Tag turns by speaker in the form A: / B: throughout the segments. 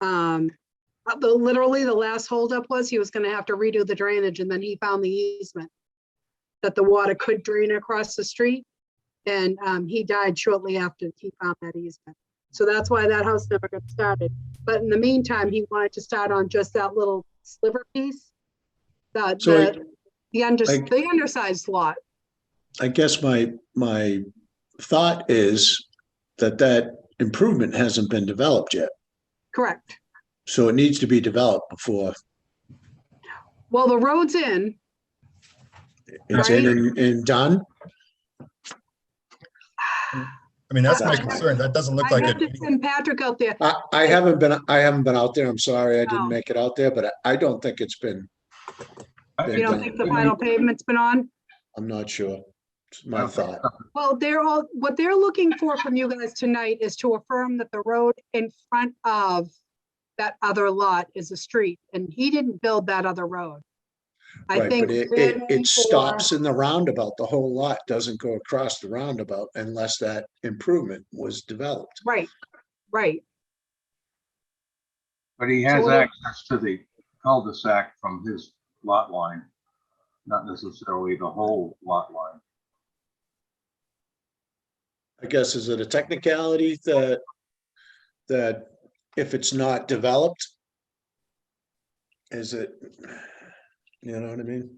A: Um, uh, the, literally the last holdup was he was gonna have to redo the drainage and then he found the easement. That the water could drain across the street. And, um, he died shortly after he found that easement. So that's why that house never got started. But in the meantime, he wanted to start on just that little sliver piece. The,
B: So I-
A: the, the under,
B: I-
A: the undersized lot.
B: I guess my, my thought is that that improvement hasn't been developed yet.
A: Correct.
B: So it needs to be developed before
A: Well, the road's in.
B: it's in and, and done.
C: I mean, that's my
B: Exactly.
C: concern. That doesn't look
A: I
C: like
A: have to
C: it.
A: send Patrick out there.
B: I, I haven't been, I haven't been out there. I'm sorry. I
A: No.
B: didn't make it out there, but I- I don't think it's been,
D: I-
A: You don't think the final pavement's been on?
B: I'm not sure. It's my thought.
A: Well, they're all, what they're looking for from you guys tonight is to affirm that the road in front of that other lot is a street, and he didn't build that other road. I
B: Right,
A: think.
B: but it,
A: Glenn
B: it, it
A: or-
B: stops in the roundabout. The whole lot doesn't go across the roundabout unless that improvement was developed.
A: Right, right.
D: But he has
A: what-
D: access to the cul-de-sac from his lot line, not necessarily the whole lot line.
B: I guess, is it a technicality that, that if it's not developed? Is it, you know what I mean?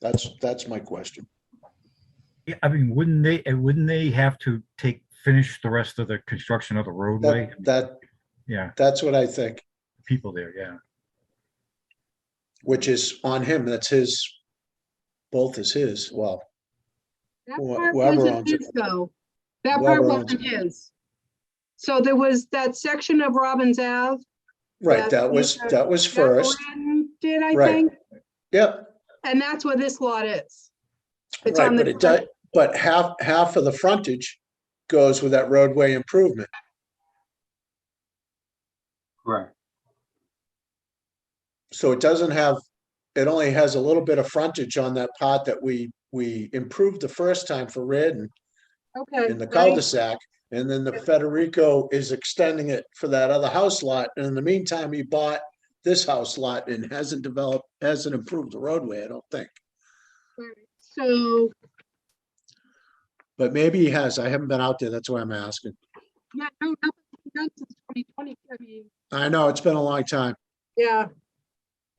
B: That's, that's my question.
E: Yeah, I mean, wouldn't they, eh, wouldn't they have to take, finish the rest of the construction of the roadway?
B: That, that,
E: Yeah,
B: that's what I think,
E: people there, yeah.
B: which is on him. That's his, both is his. Well,
A: That
B: Wh-
A: part
B: whoever
A: wasn't
B: owns it.
A: his though. That
B: Whoever
A: part
B: owns
A: wasn't his. So there was that section of Robbins Ave.
B: right,
A: That's
B: that was,
A: either-
B: that was first.
A: Did I
B: Right.
A: think?
B: Yep,
A: And that's where this lot is. It's on
B: Right, but
A: the,
B: it does,
A: front.
B: but half, half of the frontage goes with that roadway improvement.
D: Correct.
B: So it doesn't have, it only has a little bit of frontage on that part that we, we improved the first time for Redden
A: okay.
B: in the
A: right.
B: cul-de-sac. And then the Federico is extending it for that other house lot. And in the meantime, he bought this house lot and hasn't developed, hasn't improved the roadway, I don't think.
A: Right. So,
B: But maybe he has. I haven't been out there. That's why I'm asking.
A: yeah, no, nothing's been done since twenty twenty, I mean,
B: I know, it's been a long time.
A: yeah,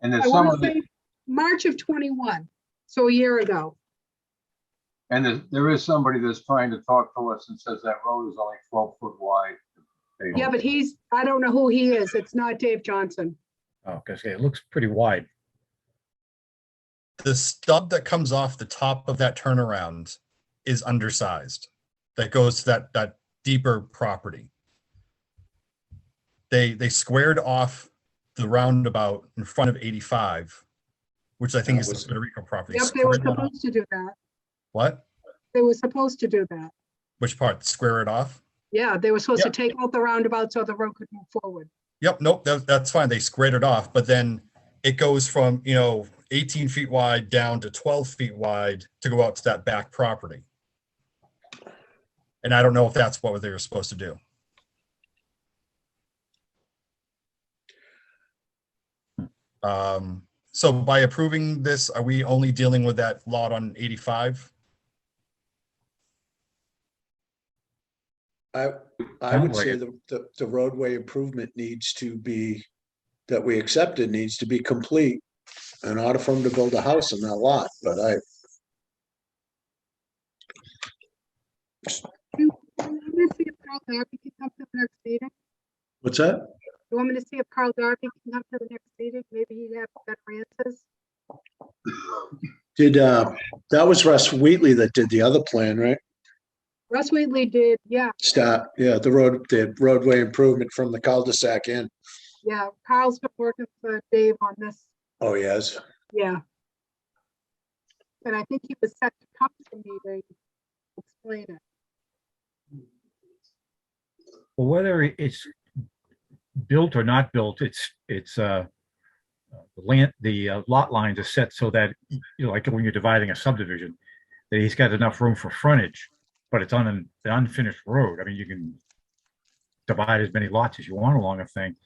D: And
A: I
D: there's some
A: want
D: of
A: to say
D: the,
A: March of twenty-one, so a year ago.
D: and there's- there is somebody that's trying to talk to us and says that road is only twelve foot wide.
A: Yeah, but he's, I don't know who he is, it's not Dave Johnson.
E: Oh, because it looks pretty wide.
C: The stub that comes off the top of that turnaround is undersized. That goes to that, that deeper property. They, they squared off the roundabout in front of eighty-five, which I think
B: That
C: is the
B: was-
C: Puerto Rico property.
A: Yep, they were
C: Squared it off-
A: supposed to do that,
C: What?
A: they were supposed to do that.
C: Which part? Square it off?
A: Yeah, they were supposed to
C: Yep.
A: take out the roundabout so the road could move forward.
C: Yep, nope, that, that's fine. They squared it off, but then it goes from, you know, eighteen feet wide down to twelve feet wide to go out to that back property. And I don't know if that's what they were supposed to do. Um, so by approving this, are we only dealing with that lot on eighty-five?
B: I, I
E: Sounds
B: would
E: like
B: say
E: it.
B: the, the- the roadway improvement needs to be, that we accepted needs to be complete in order for him to build a house on that lot, but I,
A: You want me to see if Carl Darby can come to the next meeting?
B: what's that?
A: You want me to see if Carl Darby can come to the next meeting, maybe he'd have better answers?
B: Did, uh, that was Russ Wheatley that did the other plan, right?
A: Russ Wheatley did, yeah,
B: Stop, yeah, the road, the roadway improvement from the cul-de-sac in.
A: yeah, Carl's been working for Dave on this
B: Oh, yes,
A: Yeah. And I think he was set to come to the meeting, to explain it.
E: Well, whether it- it's built or not built, it's, it's, uh, uh, the land, the uh, lot lines are set so that, you know, like when you're dividing a subdivision, that he's got enough room for frontage, but it's on an unfinished road. I mean, you can divide as many lots as you want along a thing,